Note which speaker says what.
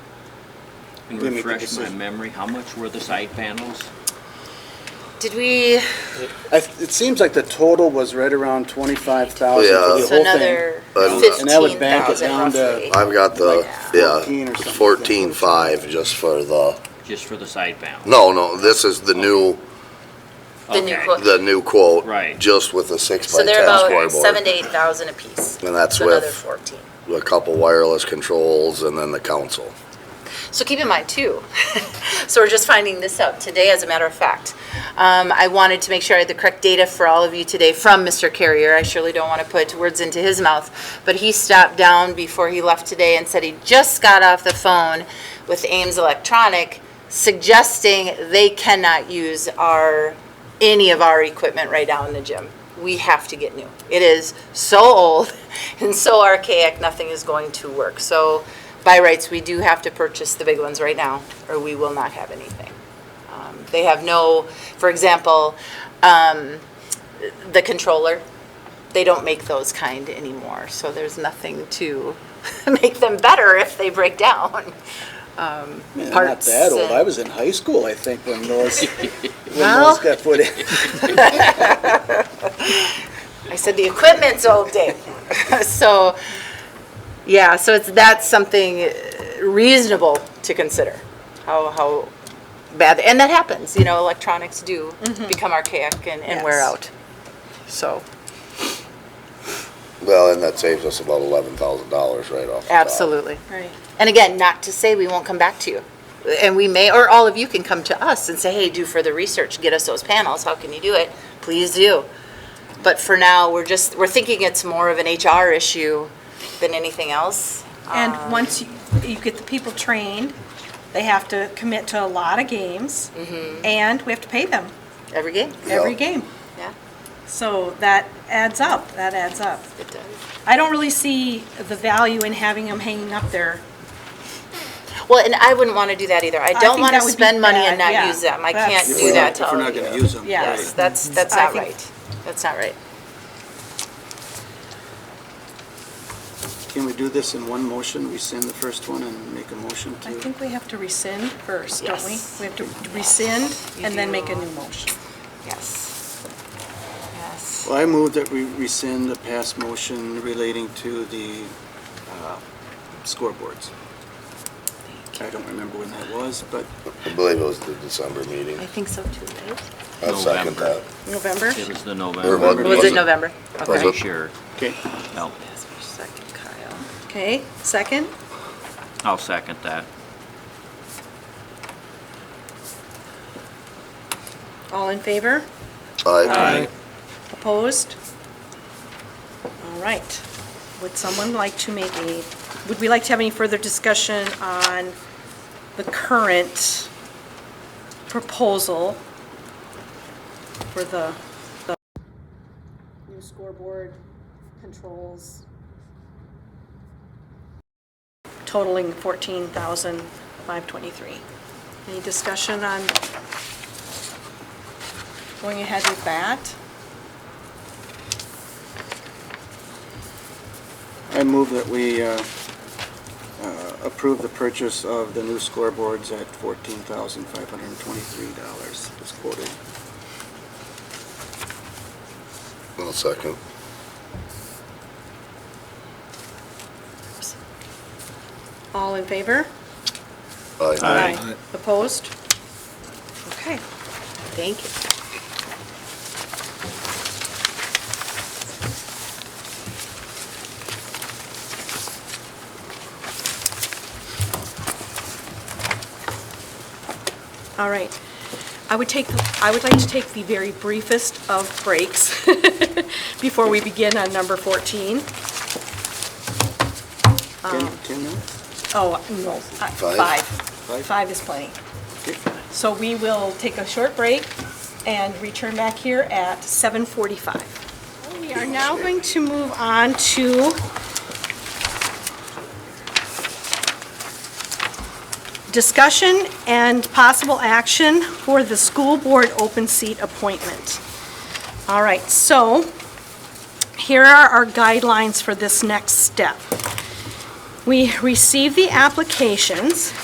Speaker 1: can
Speaker 2: They make the
Speaker 1: refresh my
Speaker 2: decision.
Speaker 1: memory, how much were the side panels?
Speaker 3: Did we,
Speaker 2: I, it seems like the total was right around twenty-five thousand
Speaker 4: Yeah.
Speaker 2: for the whole
Speaker 3: so
Speaker 2: thing.
Speaker 3: another
Speaker 4: Uh,
Speaker 2: And that would
Speaker 3: fifteen
Speaker 2: bank it
Speaker 3: thousand
Speaker 2: down to-
Speaker 3: roughly?
Speaker 4: I've got the,
Speaker 2: Like
Speaker 4: yeah,
Speaker 2: 14 or something.
Speaker 4: fourteen five just for the,
Speaker 1: Just for the side panels?
Speaker 4: no, no, this is the new,
Speaker 3: The new
Speaker 1: Okay.
Speaker 3: quote.
Speaker 4: the new quote.
Speaker 1: Right.
Speaker 4: Just with a six by
Speaker 3: So
Speaker 4: ten
Speaker 3: they're about seven
Speaker 4: scoreboard.
Speaker 3: to eight thousand apiece.
Speaker 4: And that's
Speaker 3: So Another
Speaker 4: with
Speaker 3: fourteen.
Speaker 4: a couple wireless controls and then the council.
Speaker 3: So keep in mind too, so we're just finding this out today, as a matter of fact. Um, I wanted to make sure I had the correct data for all of you today from Mr. Carrier. I surely don't want to put words into his mouth. But he stopped down before he left today and said he just got off the phone with Ames Electronic suggesting they cannot use our, any of our equipment right now in the gym. We have to get new. It is so old and so archaic, nothing is going to work. So by rights, we do have to purchase the big ones right now, or we will not have anything. Um, They have no, for example, um, the controller, they don't make those kind anymore, so there's nothing to make them better if they break down. Um,
Speaker 2: Yeah,
Speaker 3: parts
Speaker 2: Not that old.
Speaker 3: and-
Speaker 2: I was in high school, I think, when those, when
Speaker 3: Well-
Speaker 2: those got put in.
Speaker 3: I said the equipment's old day. So, yeah, so it's, that's something uh, reasonable to consider, how, how bad, and that happens, you know, electronics do become archaic and, and wear
Speaker 5: Yes.
Speaker 3: out. So,
Speaker 4: Well, and that saves us about eleven thousand dollars right off. the top.
Speaker 3: absolutely.
Speaker 5: Right.
Speaker 3: And again, not to say we won't come back to you. And we may, or all of you can come to us and say, hey, do further research, get us those panels, how can you do it? Please do. But for now, we're just, we're thinking it's more of an HR issue than anything else. Um,
Speaker 5: And once you, you get the people trained, they have to commit to a lot of games,
Speaker 3: Mm-hmm.
Speaker 5: and we have to pay them
Speaker 3: Every game,
Speaker 5: every
Speaker 4: Yeah.
Speaker 5: game.
Speaker 3: yeah,
Speaker 5: So that adds up, that adds up.
Speaker 3: it does.
Speaker 5: I don't really see the value in having them hanging up there.
Speaker 3: Well, and I wouldn't want to do that either. I don't
Speaker 5: think
Speaker 3: want to
Speaker 5: that would be
Speaker 3: spend money and
Speaker 5: bad,
Speaker 3: not
Speaker 5: yeah.
Speaker 3: use them. I
Speaker 5: That's-
Speaker 3: can't do that to
Speaker 2: If
Speaker 3: all
Speaker 2: we're
Speaker 3: of
Speaker 2: not
Speaker 3: you.
Speaker 2: gonna use them.
Speaker 3: Yes,
Speaker 5: Yes.
Speaker 3: that's, that's
Speaker 5: I
Speaker 3: not
Speaker 5: think-
Speaker 3: right. That's not right.
Speaker 2: Can we do this in one motion? We send the first one and make a motion
Speaker 5: I
Speaker 2: to,
Speaker 5: think we have to rescind first, don't we?
Speaker 3: Yes.
Speaker 5: We have to rescind
Speaker 3: You
Speaker 5: and then
Speaker 3: do.
Speaker 5: make a new motion.
Speaker 3: Yes. Yes.
Speaker 2: well, I move that we rescind the past motion relating to the uh, scoreboards. I don't remember when that was, but
Speaker 4: I believe it was the December meeting.
Speaker 3: I think so too, right?
Speaker 4: I second
Speaker 1: November.
Speaker 4: that.
Speaker 5: November?
Speaker 1: It was the
Speaker 4: November.
Speaker 1: November.
Speaker 3: Was it
Speaker 4: Wasn't-
Speaker 3: November?
Speaker 4: Was
Speaker 3: Okay.
Speaker 4: it-
Speaker 1: Pretty sure.
Speaker 2: Okay,
Speaker 1: No,
Speaker 3: Second, Kyle.
Speaker 5: Okay, second?
Speaker 1: I'll second that.
Speaker 5: All in favor?
Speaker 4: Aye.
Speaker 5: Opposed? All right. Would someone like to make a, would we like to have any further discussion on the current proposal for the, the new scoreboard controls totaling 14,523? Any discussion on going ahead with that?
Speaker 2: I move that we uh, uh, approve the purchase of the new scoreboards at fourteen thousand five hundred and twenty-three dollars, as quoted.
Speaker 4: I'll second.
Speaker 5: All in favor?
Speaker 4: Aye.
Speaker 5: Opposed? Okay.
Speaker 3: Thank you.
Speaker 5: All right. I would take, I would like to take the very briefest of breaks before we begin on number 14.
Speaker 2: Ten, ten minutes?
Speaker 5: Oh, no, I-
Speaker 4: Five?
Speaker 5: five. Five is plenty. So we will take a short break and return back here at 7:45. We are now going to move on to discussion and possible action for the school board open seat appointment. All right, so here are our guidelines for this next step. We receive the applications.